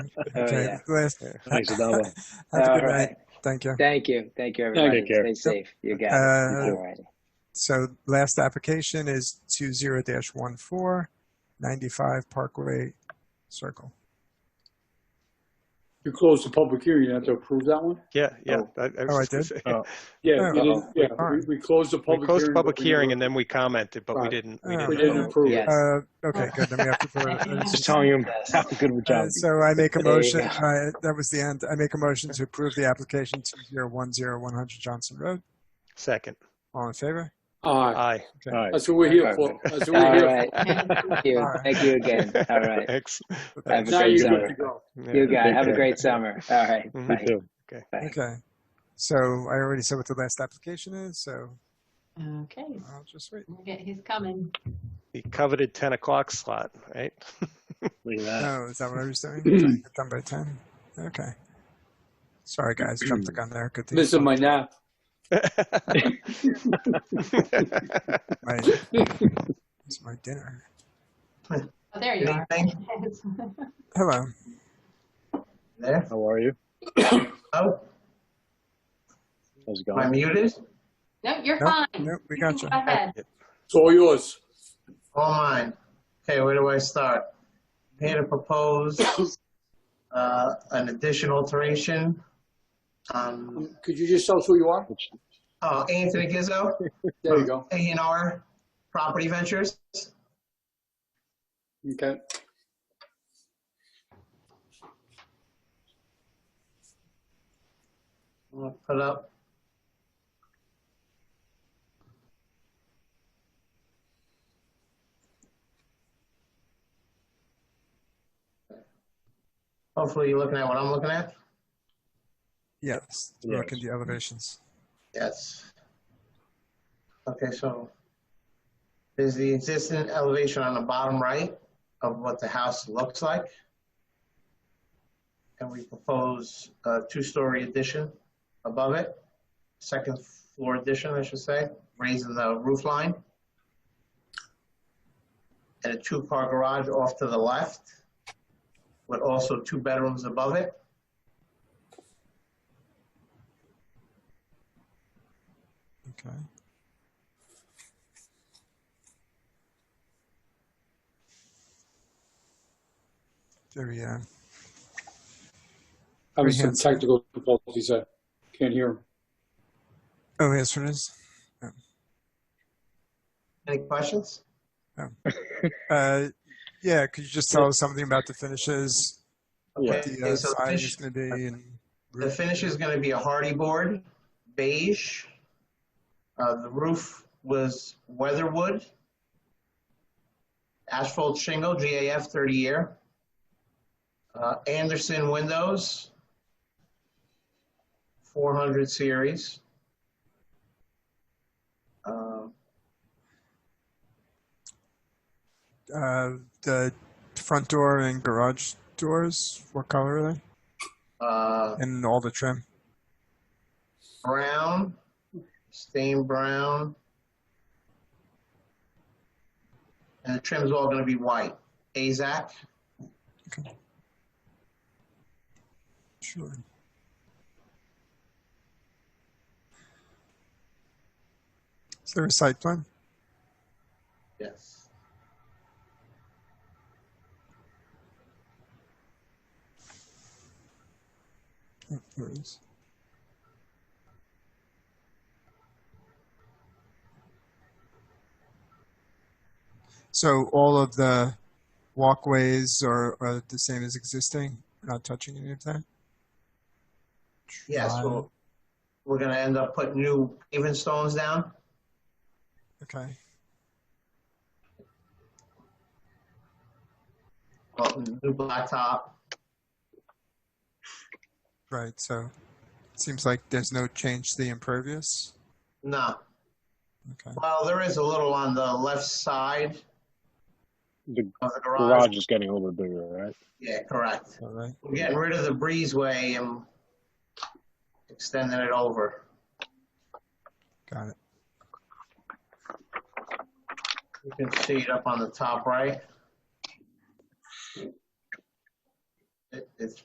Oh, okay, yeah. Liz, Thanks, Adaba. have a All good right. night. Thank you. Thank you. Thank you, everybody. Take care. Stay safe. You got Uh, it. All righty. So last application is two zero dash one four, ninety-five Parkway Circle. You closed the public hearing, you have to approve that one? Yeah, yeah. I- I was Oh, I just did? gonna say- Yeah, we Oh. didn't, yeah, All right. we, we closed the We public. closed the but public we hearing never- and then we commented, but we Right. Uh. didn't, we Oh. We didn't. didn't vote. approve it. Yes. Uh, okay, good, then we have to. vote. Just telling you how good of a Uh, job. So I make a There you motion, go. uh, that was the end, I make a motion to approve the application two zero one zero one hundred Johnson Road. Second, All in favor? Aye, aye. All right. that's what we're here for, that's what All we're here right. Thank you. Thank you again. All right. Ex- Have for. a Now great you're good summer. to go. yeah. You got it. Have a Take great summer. All right. Mhm. You Bye. too. Bye. Okay. So I already said what the last application is, so Okay, I'll just wait. we'll get- he's coming. The coveted 10 o'clock slot, right? Look at that. Oh, is that what I was doing? Get Done by ten? Okay. Sorry, guys, jumped the gun there. Good thing. you Missing my called. nap. My, it's my dinner. Oh, there you Good are. evening. Yes. Hello. There, How are you? oh, How's it am I going? muted? No, you're Nope, fine. nope, we You got can you. Go ahead. It's all yours. All mine. Okay, where do I start? Here to propose uh, an additional alteration. Um, Could you just tell us who you are? Oh, Anthony Gizzo, There you go, A and R Property Ventures. okay. I'll Put up. Hopefully you're looking at what I'm looking at. Yes, look at the elevations. Yes. Okay, so there's the existing elevation on the bottom right of what the house looks like. And we propose a two-story addition above it, second floor addition, I should say, raising the roof line. And a two-car garage off to the left with also two bedrooms above it. Okay. There we go. Having some Freehand. technical difficulties, I can't hear him. Oh, yes, it is. Any questions? Uh, yeah, could you just tell us something about the finishes? What the Okay, uh, so the siding finish- is going to be and The roof? finish is going to be a hardy board, beige. Uh, the roof was weatherwood, asphalt shingle, GAF 30 year, uh, Anderson windows, 400 series. Um, Uh, the front door and garage doors, what color are they? uh, And all the trim? brown, stained brown. And the trim's all going to be white. AZAC. Sure. Is there a site plan? Yes. Oh, There it is. So all of the walkways are, are the same as existing, not touching any of that? Um, Yes, Drive- Um, well, we're gonna end up putting new paving stones down. Okay, Well, new blacktop. right, so it seems like there's no change to the impervious? No, Okay, well, there is a little on the left side The of the garage. garage is getting a little bit bigger, right? Yeah, correct. all right. We're getting rid of the breezeway and extending it over. Got it. You can see it up on the top right. It, it's